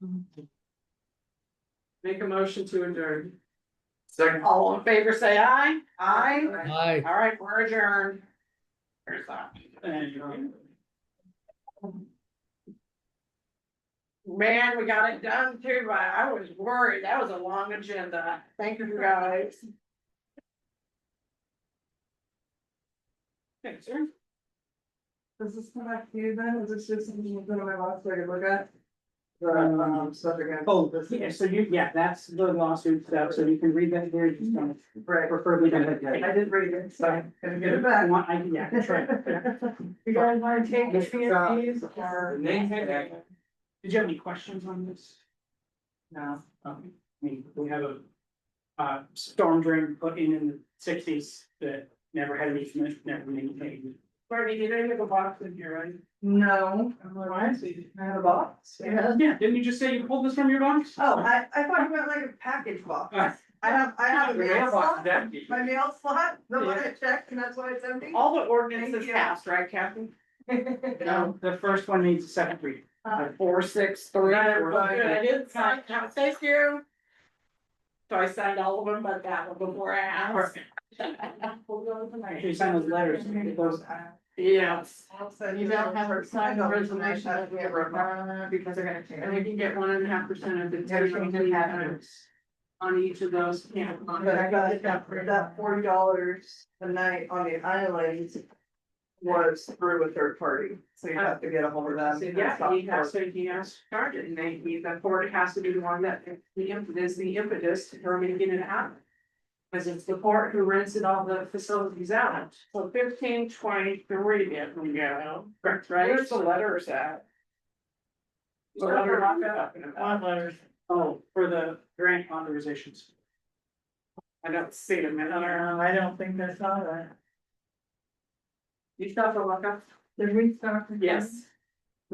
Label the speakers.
Speaker 1: Make a motion to adjourn.
Speaker 2: Second.
Speaker 1: All in favor, say aye. Aye.
Speaker 3: Aye.
Speaker 1: All right, we're adjourned. There's that. Man, we got it done too, but I was worried. That was a long agenda. Thank you guys. Thanks, sir.
Speaker 2: Does this come back to you then? Is this just something you're gonna have to look at? The um stuff again.
Speaker 4: Oh, yeah, so you, yeah, that's the lawsuit stuff, so you can read that here, just kind
Speaker 2: Right,
Speaker 4: of preferably.
Speaker 2: I
Speaker 4: I
Speaker 2: did read it, so I'm gonna get it back.
Speaker 4: want, I, yeah, that's right.
Speaker 2: You guys wanna take
Speaker 4: This is, uh,
Speaker 2: these or?
Speaker 4: Did you have any questions on this?
Speaker 2: No.
Speaker 4: Um, I mean, we have a. Uh, storm drain put in in the sixties that never had any, never been anything.
Speaker 1: Courtney, you didn't have a box in here, right?
Speaker 2: No, I'm like, why is he- I had a box. Yeah.
Speaker 4: Yeah, didn't you just say you pulled this from your box?
Speaker 2: Oh, I I thought you meant like a package box.
Speaker 4: Uh.
Speaker 2: I have, I have a mail slot,
Speaker 4: empty.
Speaker 2: my mail slot, the one
Speaker 4: Yeah.
Speaker 2: I checked and that's why it's empty.
Speaker 1: All the ordinances
Speaker 2: Thank you.
Speaker 1: passed, right, Kathy?
Speaker 4: No, the first one needs a second read.
Speaker 2: Uh.
Speaker 4: Four, six,
Speaker 1: Good,
Speaker 4: three. four,
Speaker 1: I didn't sign, thank you. So I signed all of them, but that one before I asked. We'll go
Speaker 4: After you
Speaker 1: tonight.
Speaker 4: sign those letters, those,
Speaker 1: Yes,
Speaker 2: And
Speaker 1: you don't have her signed resignation that we have
Speaker 2: Because they're gonna
Speaker 1: and
Speaker 2: change.
Speaker 1: we can get one and a half percent of the.
Speaker 2: Everything that happens.
Speaker 1: On each of those, yeah.
Speaker 2: But I got that for that forty dollars a night on the island. Was through a third party, so you have to get a hold of them.
Speaker 1: Yeah, he has, so he has started, and they, he- the court has to be the one that, the impetus, the impetus for making it happen. Cause it's the court who rented all the facilities out, so fifteen twenty-three, if we go, correct, right?
Speaker 2: Where's the
Speaker 1: letters at? The letter I'm talking about.
Speaker 4: One letters. Oh, for the grant authorizations.
Speaker 1: I don't see them in there.
Speaker 2: I don't think that's not a.
Speaker 1: You still have to look up?
Speaker 2: Did we start?
Speaker 1: Yes.